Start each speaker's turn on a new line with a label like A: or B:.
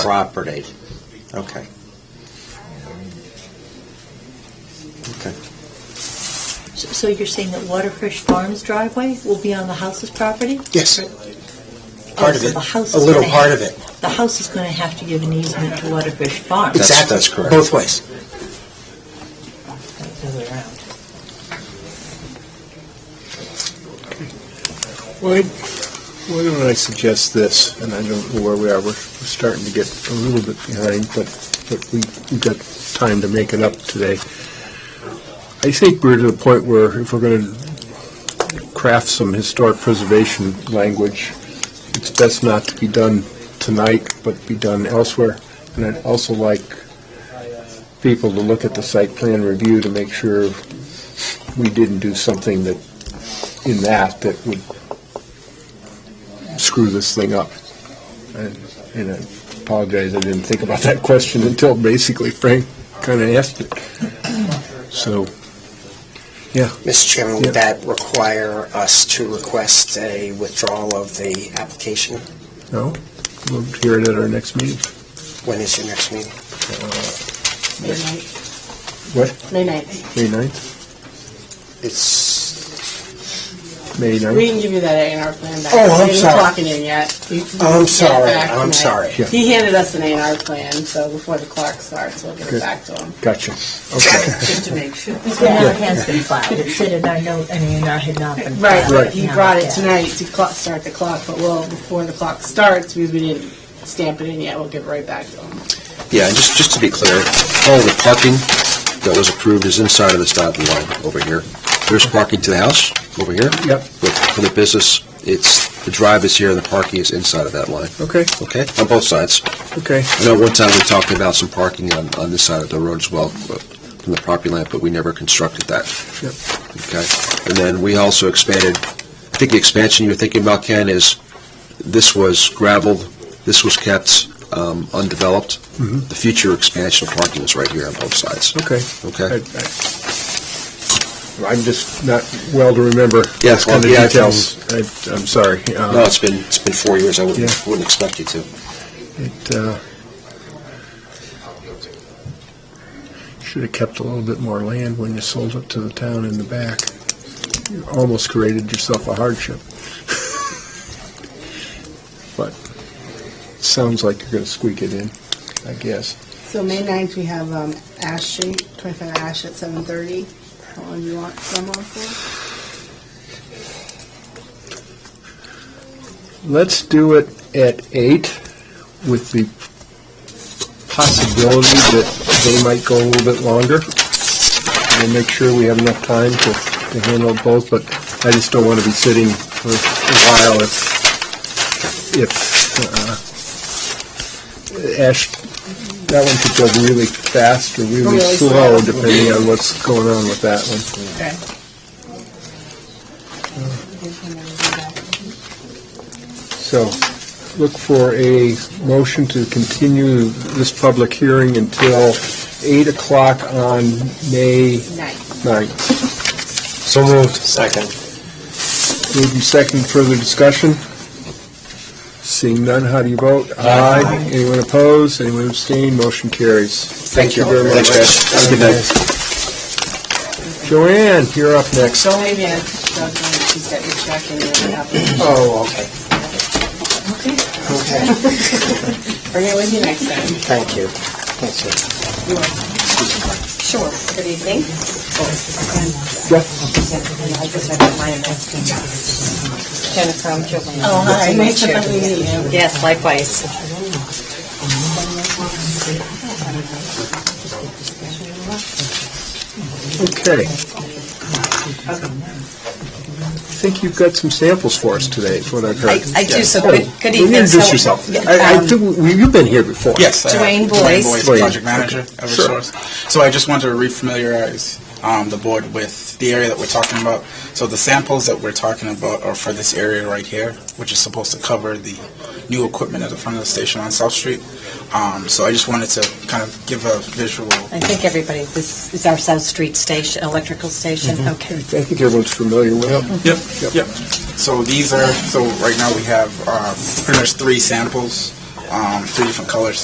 A: property. Okay. Okay.
B: So so you're saying that Waterfresh Farms driveway will be on the house's property?
A: Yes. Part of
B: Oh, so
A: it,
B: the house
A: a
B: is
A: little
B: gonna
A: part
B: have-
A: of it.
B: The house is going to have to give an easement to Waterfresh Farms.
A: Exactly.
C: that's correct.
A: Both ways.
B: Not the other way around.
D: Why, why don't I suggest this, and I don't know where we are, we're we're starting to get a little bit behind, but, but we- we've got time to make it up today. I think we're to the point where if we're going to craft some historic preservation language, it's best not to be done tonight, but be done elsewhere. And I'd also like people to look at the site plan review to make sure we didn't do something that, in that, that would screw this thing up. And and I apologize, I didn't think about that question until basically Frank kind of asked it. So,
C: Mr. Chairman,
D: Yeah.
C: would that require us to request a withdrawal of the application?
D: no, we'll hear it at our next meeting.
C: When is your next meeting?
E: May ninth.
D: What?
E: May ninth.
D: May 9th?
C: It's,
D: May
E: We
D: 9th?
E: didn't give you that A and R plan back.
C: Oh, I'm
E: We
C: sorry.
E: didn't talk it in yet. We- we
C: I'm
E: didn't get it
C: sorry,
E: back
C: I'm
E: tonight.
C: sorry.
D: Yeah.
E: He handed us an A and R plan, so before the clock starts, we'll get
D: Good.
E: it back to him.
D: Gotcha. Okay.
E: Just to make sure.
B: It's been, it has been filed, it said in our note, I mean, I had not been
E: Right,
B: filed.
E: but he
B: Now,
E: brought it
B: yeah.
E: tonight to clock, start the clock, but well, before the clock starts, because we didn't stamp it in yet, we'll give it right back to him.
F: Yeah, and just, just to be clear, all the parking that was approved is inside of this dotted line over here. There's parking to the house over here.
D: Yep.
F: But for the business, it's, the drive is here and the parking is inside of that line,
D: Okay,
F: okay? On both sides.
D: okay.
F: I know one time we talked about some parking on, on this side of the road as well, but- from the property line, but we never constructed that.
D: Yep.
F: Okay? And then we also expanded, I think the expansion you're thinking about, Ken, is this was gravel, this was kept um, undeveloped.
D: Mhm.
F: The future expansion of parking is right here on both sides,
D: Okay. I-
F: okay?
D: I- I'm just not well to remember.
F: Yeah,
D: those kind of
F: well, yeah, I can-
D: details. I- I'm sorry. Uh,
F: No, it's been, it's been four years, I
D: Yeah.
F: wouldn't, wouldn't expect you to.
D: It uh, should have kept a little bit more land when you sold it to the town in the back. You almost created yourself a hardship. But it sounds like you're going to squeak it in, I guess.
E: So May ninth, we have, um, Ash Street, twenty-five Ash at seven thirty. How long do you want someone for?
D: Let's do it at eight with the possibility that they might go a little bit longer. We'll make sure we have enough time to, to handle both, but I just don't want to be sitting for a while if, if, uh, Ash, that one could go really fast or really
E: Really
D: slow,
E: slow.
D: depending on what's going on with that one.
E: Okay.
D: So look for a motion to continue this public hearing until 8 o'clock on May
E: Ninth.
D: 9th.
C: so moved. Second.
D: Move and second, further discussion? Seeing none, how do you vote? Aye. Anyone opposed? Anyone abstain? Motion carries.
C: Thank you.
D: very much.
C: Thanks, guys.
F: Have a good night.
D: Joanne, you're up next.
E: So maybe I, she's got your check and you don't have it.
C: Oh, okay,
E: Bring it with you next time.
C: thank you. Thank you.
G: Sure. Good evening.
D: Yes.
G: Jennifer, I'm Julie.
B: Oh, hi.
E: Nice to meet you.
G: Yes, likewise.
D: Okay. I think you've got some samples for us today, is what I've heard.
G: I- I do, so
D: Yeah.
G: good- good evening.
D: Introduce
G: So-
D: yourself. I, I
G: Um,
D: think, we- you've been here before.
H: Yes. uh,
G: Dwayne Boyce.
D: Boyce.
H: project manager of
D: Okay, sure.
H: Resource. So I just want to refamiliarize um, the board with the area that we're talking about. So the samples that we're talking about are for this area right here, which is supposed to cover the new equipment at the front of the station on South Street. Um, so I just wanted to kind of give a visual.
G: I think everybody, this is our South Street station, electrical station.
A: Mm-hmm.
D: I
G: Okay.
D: think everyone's familiar with it.
H: Yep. Yep. So these are, so right now we have um, pretty much three samples, um, three different colors.